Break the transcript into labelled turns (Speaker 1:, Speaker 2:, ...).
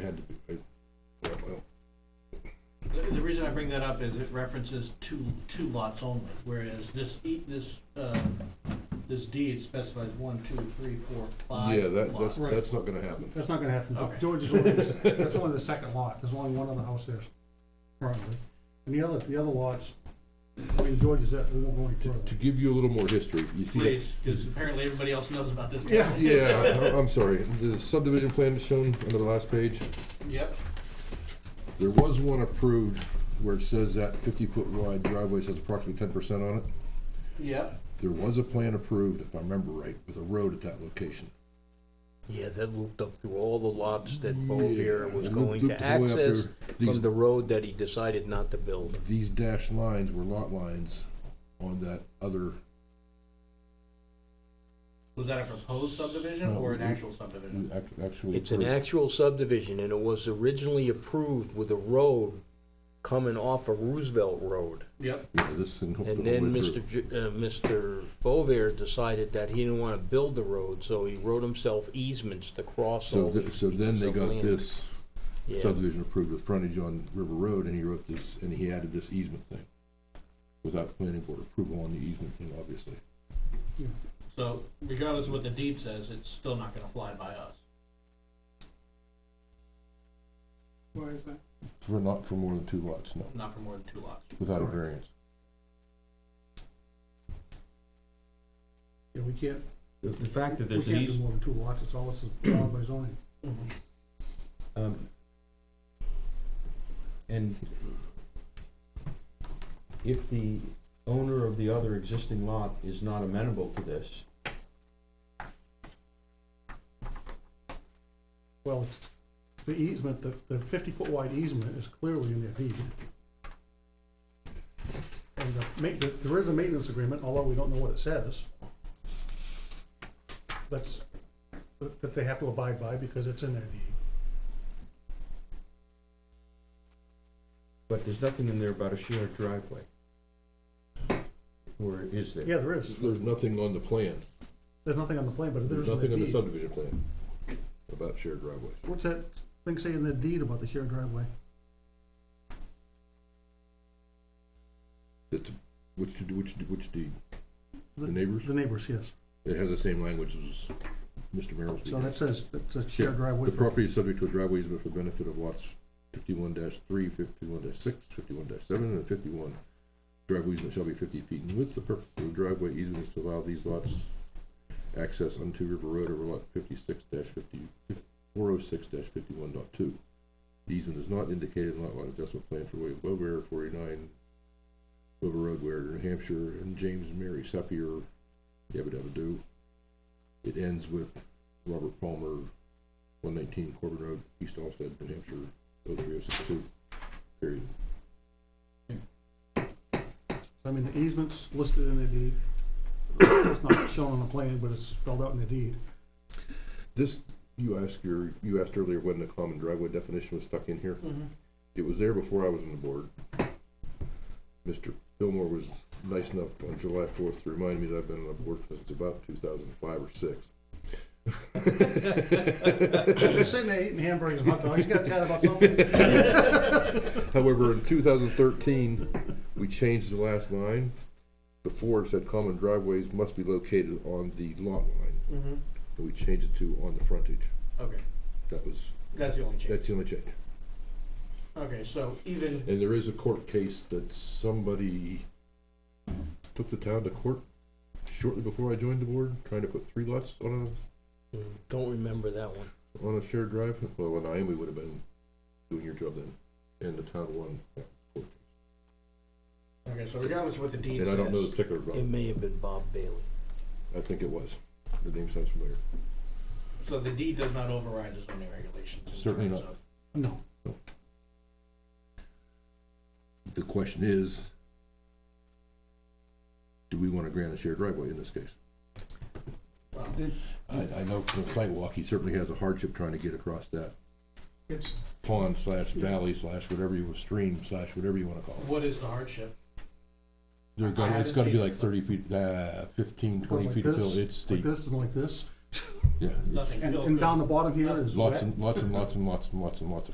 Speaker 1: had to do. it. Yeah, well,
Speaker 2: The, the reason I bring that up is it references two, two lots only, whereas this, e- this, uh, this deed specifies one, two, three, four, five
Speaker 1: Yeah, that, that's,
Speaker 2: lots.
Speaker 3: Right.
Speaker 1: that's not gonna happen.
Speaker 3: That's not gonna happen.
Speaker 2: Okay.
Speaker 3: George is only, that's only the second lot, there's only one other house there currently. And the other, the other lots, I mean, George is, at- we won't go any
Speaker 1: To
Speaker 3: further.
Speaker 1: give you a little more history, you see. that-
Speaker 2: Please, because apparently everybody else knows about this. one.
Speaker 3: Yeah.
Speaker 1: Yeah, I- I'm sorry, the subdivision plan is shown under the last page.
Speaker 2: Yep,
Speaker 1: There was one approved where it says that fifty-foot wide driveway says approximately ten percent on it.
Speaker 2: yep.
Speaker 1: There was a plan approved, if I remember right, with a road at that location.
Speaker 4: Yeah, that looped up through all the lots that Bo here
Speaker 1: Yeah,
Speaker 4: was
Speaker 1: loop- looped
Speaker 4: going to
Speaker 1: the way up
Speaker 4: access
Speaker 1: there. These-
Speaker 4: from the road that he decided not to build.
Speaker 1: These dashed lines were lot lines on that other,
Speaker 2: Was that a proposed subdivision or an actual subdivision?
Speaker 1: act- actually.
Speaker 4: It's an
Speaker 1: approved.
Speaker 4: actual subdivision, and it was originally approved with a road coming off of Roosevelt Road.
Speaker 2: Yep,
Speaker 1: Yeah, this thing hooked
Speaker 4: And
Speaker 1: all the
Speaker 4: then
Speaker 1: way through.
Speaker 4: Mr. J- uh, Mr. Bovier decided that he didn't want to build the road, so he wrote himself easements to cross
Speaker 1: So,
Speaker 4: all
Speaker 1: th-
Speaker 4: these.
Speaker 1: so then they
Speaker 4: pieces of
Speaker 1: got
Speaker 4: land.
Speaker 1: this
Speaker 4: Yeah.
Speaker 1: subdivision approved with frontage on River Road, and he wrote this, and he added this easement thing. Without planning board approval on the easement thing, obviously.
Speaker 2: so regardless of what the deed says, it's still not gonna fly by us.
Speaker 5: Why is that?
Speaker 1: For not, for more than two lots, no,
Speaker 2: Not for more than two lots.
Speaker 1: without a variance.
Speaker 3: Yeah, we can't,
Speaker 6: The, the fact that
Speaker 3: we
Speaker 6: there's an
Speaker 3: can't do
Speaker 6: easement,
Speaker 3: more than two lots, it's all, this is allowed by zoning.
Speaker 6: um, and if the owner of the other existing lot is not amenable to this,
Speaker 3: Well, it's- the easement, the, the fifty-foot wide easement is clearly in their deed. And the ma, the- there is a maintenance agreement, although we don't know what it says. That's, that that they have to abide by because it's in their deed.
Speaker 6: but there's nothing in there about a shared driveway. Or is there?
Speaker 3: Yeah, there is.
Speaker 1: There's nothing on the plan,
Speaker 3: There's nothing on the plan, but
Speaker 1: there's
Speaker 3: there's
Speaker 1: nothing
Speaker 3: in the
Speaker 1: on the
Speaker 3: deed.
Speaker 1: subdivision plan about shared driveways.
Speaker 3: What's that thing saying in the deed about the shared driveway?
Speaker 1: That, which, which, which deed?
Speaker 3: The-
Speaker 1: The neighbors?
Speaker 3: The neighbors, yes.
Speaker 1: It has the same language as Mr. Merrill's.
Speaker 3: So that says, it's a
Speaker 1: Yeah,
Speaker 3: shared driveway.
Speaker 1: The
Speaker 3: for-
Speaker 1: property is subject to a driveway easement for the benefit of lots fifty-one 3 51-6, 51 seven, and fifty-one. Driveway easement shall be fifty feet in width. The purpose of the driveway easement is to allow these lots access onto River Road over lot fifty-six 50 406 fifty-one dot two. The easement is not indicated in lot line adjustment plan for William Bover, forty-nine River Road, where New Hampshire, and James and Mary Sepier, yabba dabba do. It ends with Robert Palmer, one nineteen Corbin Road, East Alstead, New Hampshire, oh three oh six two, period.
Speaker 3: I mean, the easement's listed in the deed. It's not shown on the plan, but it's spelled out in the deed.
Speaker 1: This, you asked your, you asked earlier when the common driveway definition was stuck in here. It was there before I was on the board. Mr. Fillmore was nice enough on July fourth to remind me that I've been on the board since about two thousand and five or six.
Speaker 3: They're sitting there eating hamburgers and hot dogs, you gotta chat about something.
Speaker 1: However, in two thousand thirteen, we changed the last line. Before it said common driveways must be located on the lot line,
Speaker 2: Mm-hmm.
Speaker 1: and we changed it to on the frontage.
Speaker 2: Okay,
Speaker 1: That was,
Speaker 2: that's the only change.
Speaker 1: that's the only change.
Speaker 2: Okay, so even,
Speaker 1: And there is a court case that somebody took the town to court shortly before I joined the board, trying to put three lots on
Speaker 4: Mm, Don't remember that one.
Speaker 1: a, on a shared drive. Well, when I am, we would have been doing your job then, and the town won.
Speaker 2: okay, so regardless of what the
Speaker 1: And
Speaker 2: deed
Speaker 1: I
Speaker 2: says.
Speaker 1: don't know the particular,
Speaker 4: It
Speaker 1: but
Speaker 4: may have been Bob Bailey.
Speaker 1: I think it was. The name sounds familiar.
Speaker 2: So the deed does not override the zoning regulations? in
Speaker 1: Certainly
Speaker 2: terms
Speaker 1: not.
Speaker 2: of-
Speaker 3: No,
Speaker 1: The question is, do we want to grant a shared driveway in this case?
Speaker 2: well,
Speaker 1: I, I know from the site walk, he certainly has a hardship trying to get across that
Speaker 5: It's,
Speaker 1: pond slash valley slash whatever you, stream slash whatever you want to call it.
Speaker 2: What is the hardship?
Speaker 1: They're
Speaker 2: I
Speaker 1: gonna, it's
Speaker 2: haven't
Speaker 1: gotta be
Speaker 2: seen
Speaker 1: like
Speaker 2: it.
Speaker 1: thirty feet, uh, fifteen, twenty
Speaker 3: Like
Speaker 1: feet of fill,
Speaker 3: this,
Speaker 1: it's
Speaker 3: like
Speaker 1: steep.
Speaker 3: this and like this,
Speaker 1: yeah. it's
Speaker 2: Nothing.
Speaker 3: And,
Speaker 2: Feel
Speaker 3: and down
Speaker 2: good.
Speaker 3: the bottom here is
Speaker 1: Lots
Speaker 3: wet.
Speaker 1: and, lots and lots and lots and lots and lots of